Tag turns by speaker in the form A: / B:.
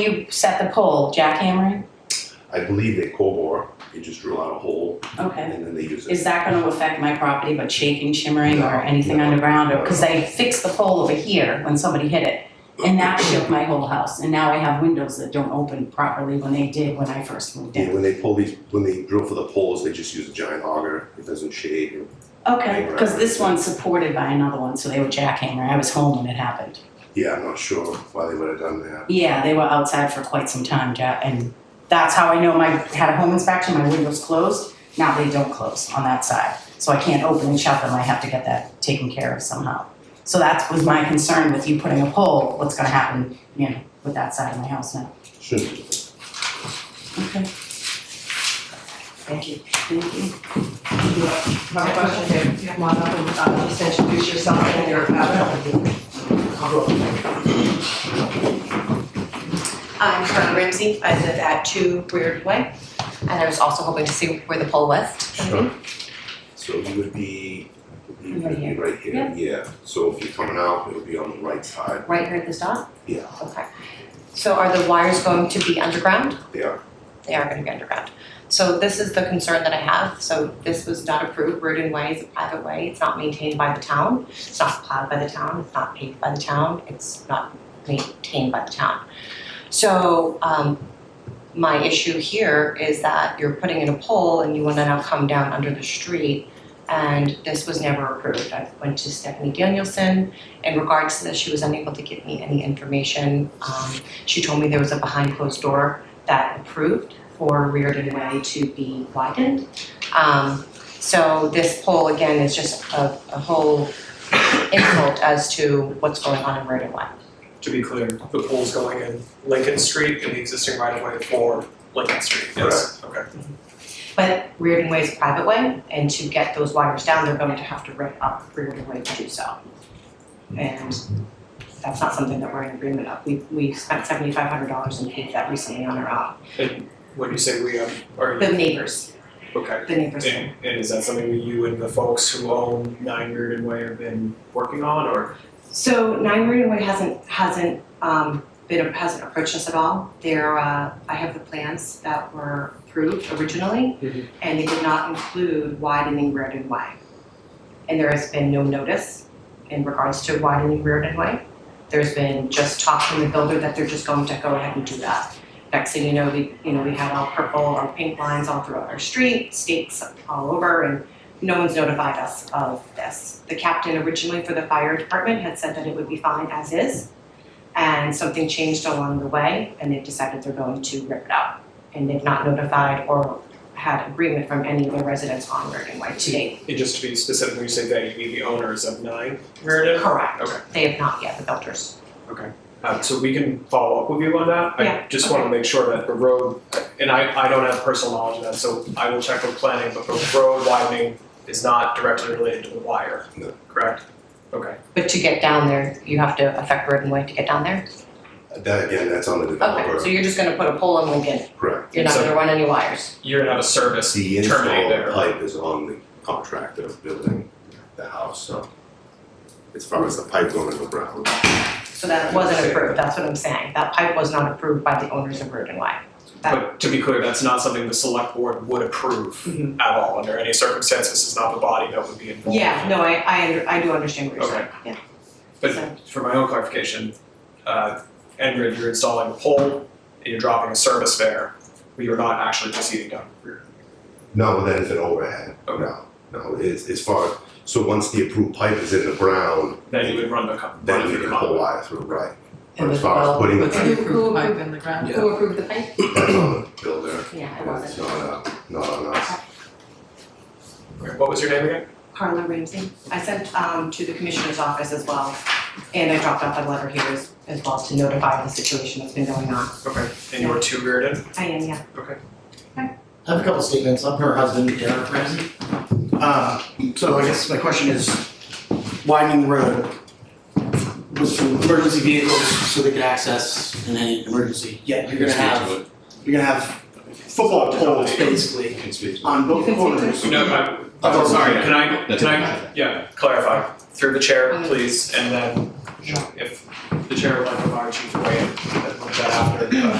A: You set the pole, jackhammering?
B: I believe they cold bore, they just drill out a hole
A: Okay.
B: and then they use it.
A: Is that gonna affect my property, but shaking, shimmering, or
B: No,
A: anything
B: no.
A: underground, or, cause they fixed the pole over here when somebody hit it. And that shook my whole house, and now I have windows that don't open properly when they did when I first moved
B: Yeah,
A: in.
B: when they pull these, when they drill for the poles, they just use a giant auger, it doesn't shade. and-
A: Okay, cause this one's supported by another one, so they were jackhammer, I was home when it happened.
B: Yeah, I'm not sure why they would have done that.
A: Yeah, they were outside for quite some time, Jack, and that's how I know my, had a home inspection, my windows closed. Now they don't close on that side, so I can't open and shut them, I have to get that taken care of somehow. So that was my concern with you putting a pole, what's gonna happen, you know, with that side of my house now.
B: Shouldn't. be.
A: Okay. Thank you. Thank you.
C: My question there, come on up and uh, just introduce yourself and your background.
D: I'm Karen Ramsey. I live at Two Weird Way, and I was also hoping to see where the pole was.
B: Sure. So you would be, you
A: Right
B: would be
A: here.
B: right here, yeah. So if you're coming out, it'll be on the right side,
D: Right here at this dot?
B: Yeah.
D: Okay. So are the wires going to be underground?
B: there.
D: They are going to be underground. So this is the concern that I have. So this was not approved. Rudin Way is a private way. It's not maintained by the town. It's not plowed by the town. It's not paved by the town. It's not maintained by the town. So um, my issue here is that you're putting in a pole and you want to now come down under the street. And this was never approved. I went to Stephanie Danielson. In regards to this, she was unable to give me any information. Um, she told me there was a behind closed door that approved for Reardon Way to be widened. Um, so this poll again is just a, a whole insult as to what's going on in Reardon Way.
E: To be clear, the pool's going in Lincoln Street in the existing right of way for Lincoln Street, yes, okay.
D: But Reardon Way is a private way, and to get those wires down, they're going to have to rip up Reardon Way to do so. And that's not something that we're in agreement of. We, we spent seventy-five hundred dollars and paid that recently on our own.
E: And when you say we have, are you,
D: The neighbors,
E: okay.
D: the neighbors.
E: And, and is that something that you and the folks who own Nine Reardon Way have been working on, or?
D: So Nine Marina Way hasn't hasn't um been hasn't approached us at all. They're uh I have the plans that were approved originally
E: Mhm.
D: and they did not include widening Reardon Way. And there has been no notice in regards to widening Reardon Way. There's been just talk from the builder that they're just going to go ahead and do that. Next thing you know, we you know, we had all purple or pink lines all throughout our street, stakes all over and no one's notified us of this. The captain originally for the fire department had said that it would be fine as is, and something changed along the way, and they've decided they're going to rip it up. And they've not notified or had agreement from any of the residents on Reardon Way to date.
E: And just to be specific, when you say they, you mean the owners of Nine Reardon?
D: Correct.
E: Okay.
D: They have not yet, the builders.
E: Uh, so we can follow up with you on that.
D: Yeah,
E: I just wanna make sure that the road, and I, I don't have personal knowledge of that, so I will check with planning, but the road widening is not directly related to the wire.
B: No.
E: Correct? Okay.
D: But to get down there, you have to affect Reardon Way to get down there?
B: That again, that's on the
D: Okay, so
B: developer,
D: you're just gonna put a pole in Lincoln,
B: correct.
D: you're not
E: So-
D: gonna run any wires?
E: You're gonna have a service
B: The
E: terminate
B: install
E: there.
B: pipe is on the contractor building the house, so as far as the pipe going underground,
D: So that wasn't approved, that's what I'm saying, that pipe was not approved by the owners of Reardon Way. That-
E: But to be clear, that's not something the select board would approve
D: Mm-hmm.
E: at all, under any circumstances, it's not the body that would be involved.
D: Yeah, no, I, I, under- I do understand what you're saying,
E: Okay.
D: yeah.
E: But-
D: So-
E: For my own clarification, uh, Enbridge, you're installing a pole, and you're dropping a service there, but you're not actually proceeding down Reardon.
B: no, that is an overhead,
E: Okay.
B: no, no, it's as far, so once the approved pipe is in the ground,
E: Then you would run the, co-
B: then
E: run
B: you
E: the
B: can
E: con-
B: pull wire through, right?
A: And
B: But as
A: the
B: far as
A: well-
B: putting the
A: with
B: pipe,
A: approved pipe in the ground.
D: Who approved the pipe?
B: that's on the builder,
D: Yeah, it
B: and it's
D: wasn't.
B: not, uh, not on us.
E: Okay, What was your name again?
D: Carla Ramsey. I sent um to the commissioner's office as well, and I dropped off a letter here as as well to notify the situation that's been going on.
E: Okay, and you were two Reardon?
D: I am, yeah.
F: I have a couple statements. I'm her husband, Derek Ramsey. Uh, so I guess my question is, widening the road was for emergency vehicles so they could access in any emergency. Yeah, you're gonna have, you're gonna have football poles basically on both
D: You can see
F: corners.
E: No, uh, I'm,
F: Oh,
E: sorry, can I, can I, yeah, clarify. through the chair, please, and then if the chair would like to invite you to weigh in, that after, uh,